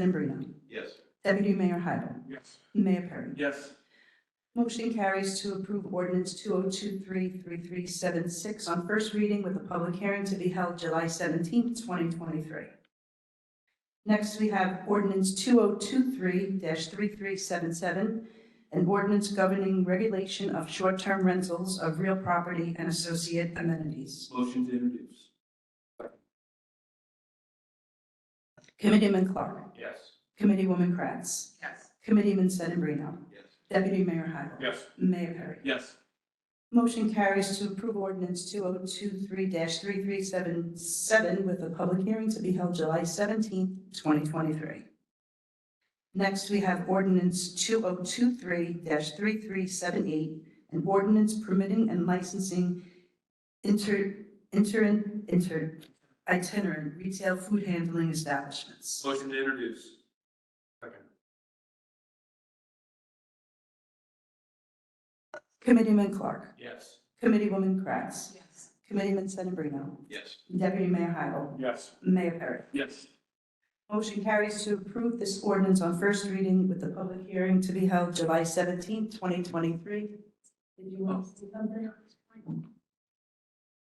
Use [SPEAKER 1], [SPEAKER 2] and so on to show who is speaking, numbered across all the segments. [SPEAKER 1] Sedembrino.
[SPEAKER 2] Yes.
[SPEAKER 1] Deputy Mayor Hybel.
[SPEAKER 2] Yes.
[SPEAKER 1] Mayor Perry.
[SPEAKER 2] Yes.
[SPEAKER 1] Motion carries to approve ordinance 2023-3376 on first reading with a public hearing to be held July 17, 2023. Next, we have ordinance 2023-3377, an ordinance governing regulation of short-term rentals of real property and associate amenities.
[SPEAKER 2] Motion to introduce.
[SPEAKER 1] Committeeman Clark.
[SPEAKER 2] Yes.
[SPEAKER 1] Committeewoman Kratz.
[SPEAKER 3] Yes.
[SPEAKER 1] Committeeman Sedambrino.
[SPEAKER 2] Yes.
[SPEAKER 1] Deputy Mayor Hybel.
[SPEAKER 2] Yes.
[SPEAKER 1] Mayor Perry.
[SPEAKER 2] Yes.
[SPEAKER 1] Motion carries to approve ordinance two oh two three three three seven seven with a public hearing to be held July seventeenth, twenty twenty-three. Next, we have ordinance two oh two three three three seven eight, an ordinance permitting and licensing inter, interin, inter, itinerant retail food handling establishments.
[SPEAKER 2] Motion to introduce. Second.
[SPEAKER 1] Committeeman Clark,
[SPEAKER 2] Yes.
[SPEAKER 1] Committeewoman Kratz,
[SPEAKER 3] Yes.
[SPEAKER 1] Committeeman Sedambrino,
[SPEAKER 2] Yes.
[SPEAKER 1] Deputy Mayor Hybel,
[SPEAKER 2] Yes.
[SPEAKER 1] Mayor Perry.
[SPEAKER 2] Yes.
[SPEAKER 1] Motion carries to approve this ordinance on first reading with the public hearing to be held July seventeenth, twenty twenty-three. Did you want to say something?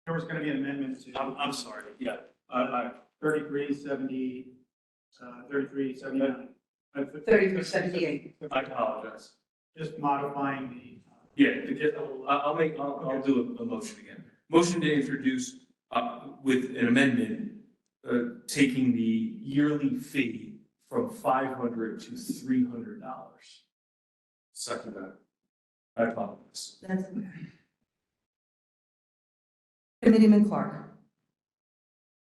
[SPEAKER 4] There was going to be an amendment to.
[SPEAKER 2] I'm, I'm sorry. Yeah.
[SPEAKER 4] uh, Uh, thirty-three seventy, uh, thirty-three seventy-nine. Uh,
[SPEAKER 1] Thirty-three seventy-eight.
[SPEAKER 2] I apologize.
[SPEAKER 4] Just modifying the, uh,
[SPEAKER 2] Yeah, to get- I'll, I'll make, I'll, I'll do a, a motion again. Motion to introduce, uh, with an amendment, uh, taking the yearly fee from five hundred to three hundred dollars. Second that. I apologize.
[SPEAKER 1] That's okay. Committeeman Clark,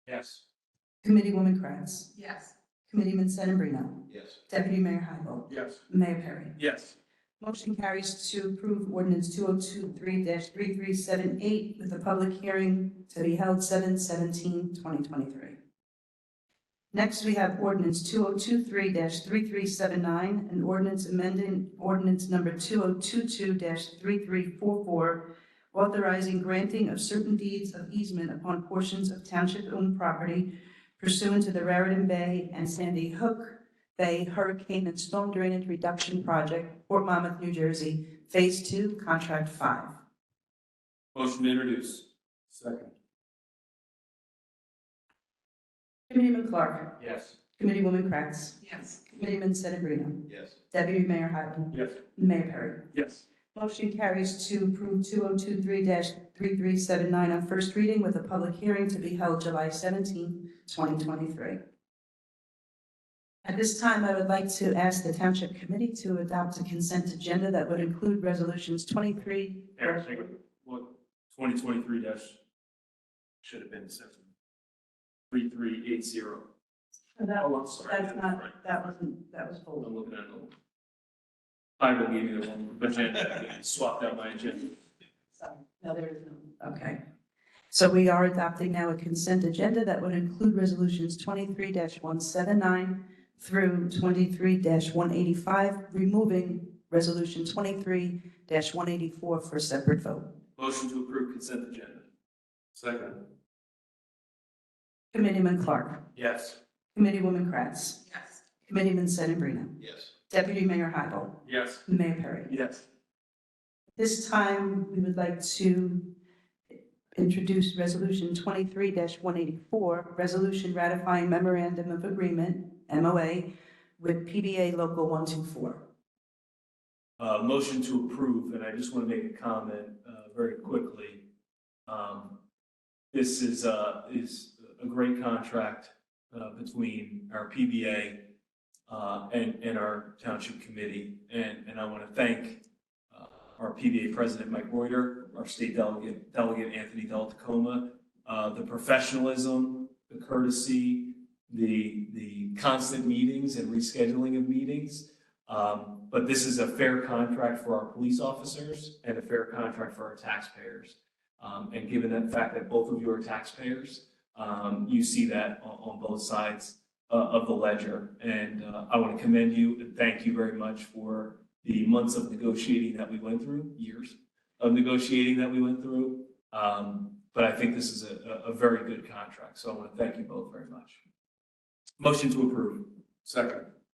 [SPEAKER 2] Yes.
[SPEAKER 1] Committeewoman Kratz,
[SPEAKER 3] Yes.
[SPEAKER 1] Committeeman Sedambrino,
[SPEAKER 2] Yes.
[SPEAKER 1] Deputy Mayor Hybel,
[SPEAKER 2] Yes.
[SPEAKER 1] Mayor Perry.
[SPEAKER 2] Yes.
[SPEAKER 1] Motion carries to approve ordinance two oh two three three three seven eight with a public hearing to be held 7-17-2023. Next, we have ordinance two oh two three three three seven nine, an ordinance amending ordinance number two oh two two three three four four, authorizing granting of certain deeds of easement upon portions of township-owned property pursuant to the Raritan Bay and Sandy Hook Bay Hurricane and Storm Drainage Reduction Project, Fort Monmouth, New Jersey, Phase Two, Contract Five.
[SPEAKER 2] Motion to introduce. Second.
[SPEAKER 1] Committeeman Clark,
[SPEAKER 2] Yes.
[SPEAKER 1] Committeewoman Kratz,
[SPEAKER 3] Yes.
[SPEAKER 1] Committeeman Sedambrino,
[SPEAKER 2] Yes.
[SPEAKER 1] Deputy Mayor Hyden,
[SPEAKER 2] Yes.
[SPEAKER 1] Mayor Perry.
[SPEAKER 2] Yes.
[SPEAKER 1] Motion carries to approve two oh two three three three seven nine on first reading with a public hearing to be held July 17, twenty twenty-three. At this time, I would like to ask the Township Committee to adopt a consent agenda that would include resolutions twenty-three.
[SPEAKER 2] Twenty twenty-three dash, should have been seven. Three, three, eight, zero. Oh, I'm sorry.
[SPEAKER 1] That's not, that wasn't, that was full.
[SPEAKER 2] I'm looking at the. I will give you the one, agenda, swapped out my agenda.
[SPEAKER 1] No, there is no. Okay. So we are adopting now a consent agenda that would include resolutions twenty-three one seven nine through twenty-three one eighty-five, removing resolution twenty-three one eighty-four for separate vote.
[SPEAKER 2] Motion to approve consent agenda. Second.
[SPEAKER 1] Committeeman Clark,
[SPEAKER 2] Yes.
[SPEAKER 1] Committeewoman Kratz,
[SPEAKER 3] Yes.
[SPEAKER 1] Committeeman Sedambrino,
[SPEAKER 2] Yes.
[SPEAKER 1] Deputy Mayor Hybel,
[SPEAKER 2] Yes.
[SPEAKER 1] Mayor Perry.
[SPEAKER 2] Yes.
[SPEAKER 1] This time, we would like to introduce Resolution 23-184, Resolution ratifying memorandum of agreement, MOA, with PBA Local 124.
[SPEAKER 2] Uh, motion to approve, and I just want to make a comment, uh, very quickly. Um, this is, uh, is a great contract, uh, between our PBA, uh, and, and our township committee. And, and I want to thank, uh, our PBA president, Mike Reuter, our state delegate, delegate Anthony Del Tacoma, uh, the professionalism, the courtesy, the, the constant meetings and rescheduling of meetings. Um, but this is a fair contract for our police officers and a fair contract for our taxpayers. Um, and given the fact that both of you are taxpayers, um, you see that on, on both sides uh, of the ledger. And, uh, I want to commend you and thank you very much for the months of negotiating that we went through, years of negotiating that we went through. Um, but I think this is a, a, a very good contract. So I want to thank you both very much. Motion to approve.
[SPEAKER 3] Second.